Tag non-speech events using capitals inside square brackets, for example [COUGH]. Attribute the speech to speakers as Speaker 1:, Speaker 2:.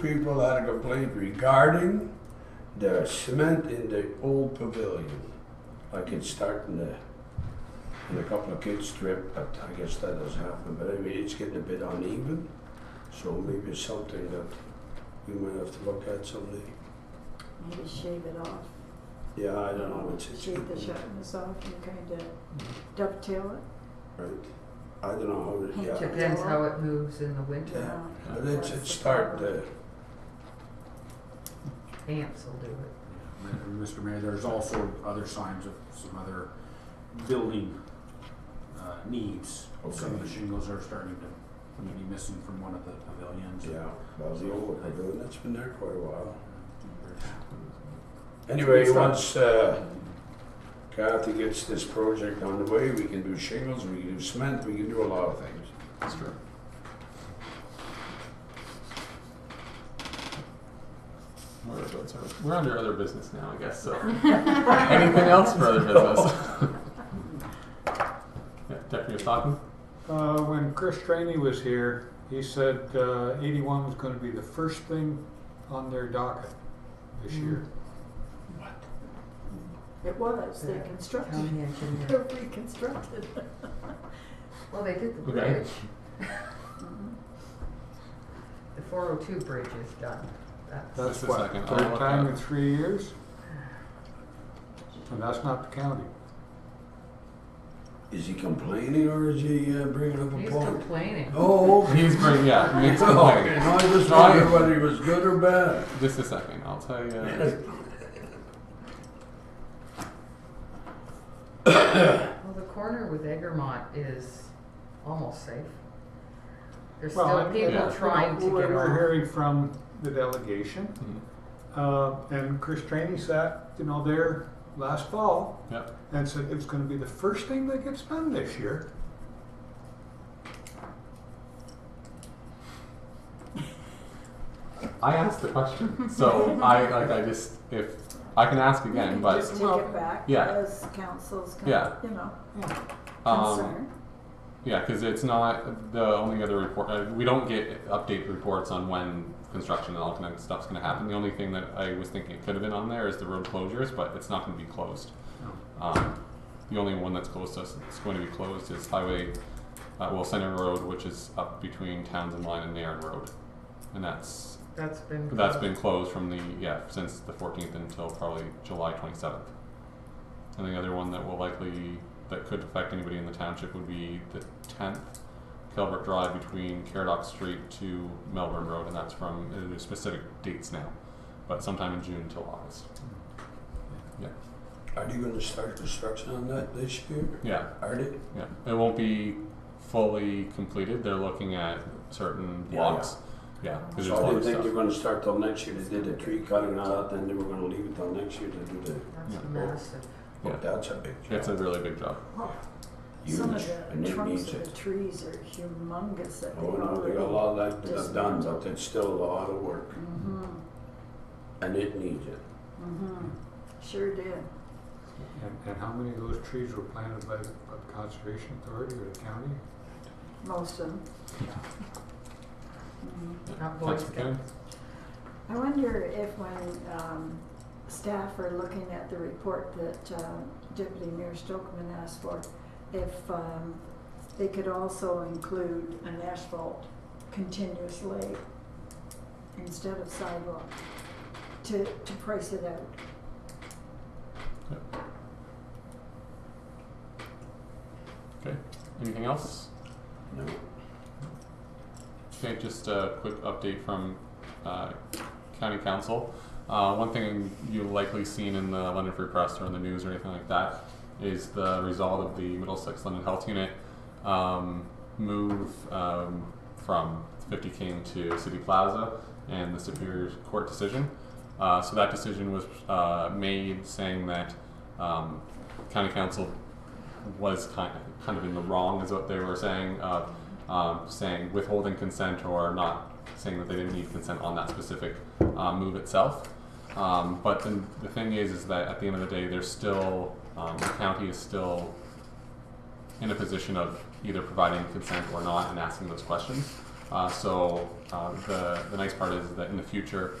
Speaker 1: people out of complaint regarding the cement in the old pavilion. Like it's starting to, and a couple of kids tripped, but I guess that doesn't happen. But anyway, it's getting a bit uneven. So maybe it's something that we might have to look at someday.
Speaker 2: Maybe shave it off.
Speaker 1: Yeah, I don't know. It's, it's
Speaker 2: Shave the sharpness off and kind of dovetail
Speaker 1: Right. I don't know how to, yeah.
Speaker 3: Depends how it moves in the
Speaker 2: it.
Speaker 3: winter.
Speaker 1: Yeah.
Speaker 2: Uh,
Speaker 1: But it's,
Speaker 2: that's
Speaker 1: it's
Speaker 2: the
Speaker 1: starting
Speaker 2: problem.
Speaker 1: to,
Speaker 3: Ants will do it.
Speaker 4: And Mr. Mayor, there's also other signs of some other building uh, needs. Some of the
Speaker 1: Okay.
Speaker 4: shingles are starting to be missing from one of the pavilions.
Speaker 1: yeah, well, the old pavilion, that's been there quite a while.
Speaker 4: There's-
Speaker 1: Anyway,
Speaker 4: Good stuff.
Speaker 1: once uh, Kathy gets this project on the way, we can do shingles, we can do cement, we can do a lot of things.
Speaker 5: That's true. We're, that's our- we're under other business now, I guess. So, anything else for other business? yeah, Jeff, you're talking.
Speaker 6: Uh, when Chris Trainey was here, he said uh, 81 was going to be the first thing on their docket this year.
Speaker 2: It was, they
Speaker 3: Yeah.
Speaker 2: constructed, [LAUGHS]
Speaker 3: Mm, County engineer.
Speaker 2: they're reconstructed.
Speaker 3: Well, they did the
Speaker 5: Okay.
Speaker 3: bridge. [LAUGHS] The four oh two bridge is done. That's,
Speaker 6: That's
Speaker 5: Just a
Speaker 6: what,
Speaker 5: second, I'll
Speaker 6: third
Speaker 5: look
Speaker 6: time
Speaker 5: at-
Speaker 6: in three years? And that's not the county.
Speaker 1: Is he complaining or is he uh, bringing up a
Speaker 3: he's
Speaker 1: point?
Speaker 3: complaining.
Speaker 2: [LAUGHS]
Speaker 1: Oh, okay.
Speaker 5: He's bringing yeah.
Speaker 1: [LAUGHS]
Speaker 5: He's
Speaker 1: No,
Speaker 5: complaining.
Speaker 1: I just wondered whether he was good or bad.
Speaker 5: Just a second. I'll tell you.
Speaker 3: Well, the corner with Egremont is almost safe. There's
Speaker 6: Well,
Speaker 3: still
Speaker 6: and-
Speaker 3: people
Speaker 5: Yeah.
Speaker 3: trying to
Speaker 6: We're-
Speaker 3: get
Speaker 6: We're
Speaker 3: on.
Speaker 6: hearing from the delegation,
Speaker 5: Mhm.
Speaker 6: uh, and Chris Trainey sat, you know, there last fall
Speaker 5: Yep.
Speaker 6: and said it was going to be the first thing that gets done this year.
Speaker 5: I asked the question, so I like I just if I can ask again,
Speaker 2: You
Speaker 5: but
Speaker 2: can just take it back
Speaker 5: yeah.
Speaker 2: as council's, con-
Speaker 5: Yeah.
Speaker 2: you know,
Speaker 5: um,
Speaker 2: concern.
Speaker 5: Yeah, because it's not the only other report. Uh, we don't get update reports on when construction and all kind of stuff's going to happen. The only thing that I was thinking it could have been on there is the road closures, but it's not going to be closed. Um, the only one that's close to us that's going to be closed is Highway, uh, well, Center Road, which is up between Townsend Line and Nairn Road, and that's
Speaker 3: That's been.
Speaker 5: that's
Speaker 3: closed.
Speaker 5: been closed from the yeah since the 14th until probably July 27th. And the other one that will likely that could affect anybody in the township would be the 10th Calvert Drive between Caradoc Street to Melbourne Road, and that's from uh, there's specific dates now, but sometime in June till August.
Speaker 1: Are you gonna start construction on that this year?
Speaker 5: Yeah,
Speaker 1: Are they?
Speaker 5: yeah. It won't be fully completed. They're looking at certain
Speaker 1: Yeah,
Speaker 5: blocks. Yeah, because
Speaker 1: So
Speaker 5: there's
Speaker 1: I
Speaker 5: a lot
Speaker 1: didn't
Speaker 5: of
Speaker 1: think
Speaker 5: stuff.
Speaker 1: they were gonna start till next year. They did the tree cutting out, then they were gonna leave it till next year to do the,
Speaker 3: That's
Speaker 5: Yeah.
Speaker 3: massive.
Speaker 5: Yeah.
Speaker 1: but that's a big
Speaker 5: It's a
Speaker 1: job.
Speaker 5: really big job.
Speaker 2: Some
Speaker 1: Huge,
Speaker 2: of
Speaker 1: and
Speaker 2: the
Speaker 1: it
Speaker 2: trunks
Speaker 1: needs
Speaker 2: of
Speaker 1: it.
Speaker 2: the trees are humongous that they
Speaker 1: Oh, no, we
Speaker 2: already.
Speaker 1: got a lot of that that's done,
Speaker 2: dismantled.
Speaker 1: but it's still a lot of work
Speaker 2: Mm-hmm,
Speaker 1: and it needs it.
Speaker 2: mm-hmm, sure did.
Speaker 6: And, and how many of those trees were planted by, by the Conservation Authority or the county?
Speaker 2: Most of them. Mhm.
Speaker 5: Yeah.
Speaker 3: Not Boy
Speaker 5: Thanks for coming.
Speaker 3: Scouts.
Speaker 2: I wonder if when um, staff are looking at the report that uh, Deputy Mayor Stokeman asked for, if um, they could also include an asphalt continuous lay instead of sidewalk to, to price it out.
Speaker 5: Anything else?
Speaker 1: No.
Speaker 5: Okay, just a quick update from uh, County Council. Uh, one thing you've likely seen in the London Free Press or in the news or anything like that is the result of the Middlesex London Health Unit um, move um, from 50 King to City Plaza and the Superior Court decision. Uh, so that decision was uh, made saying that um, County Council was kind of, kind of in the wrong, is what they were saying, uh, um, saying withholding consent or not saying that they didn't need consent on that specific uh, move itself. Um, but the, the thing is, is that at the end of the day, there's still um, the county is still in a position of either providing consent or not and asking those questions. Uh, so uh, the the nice part is that in the future,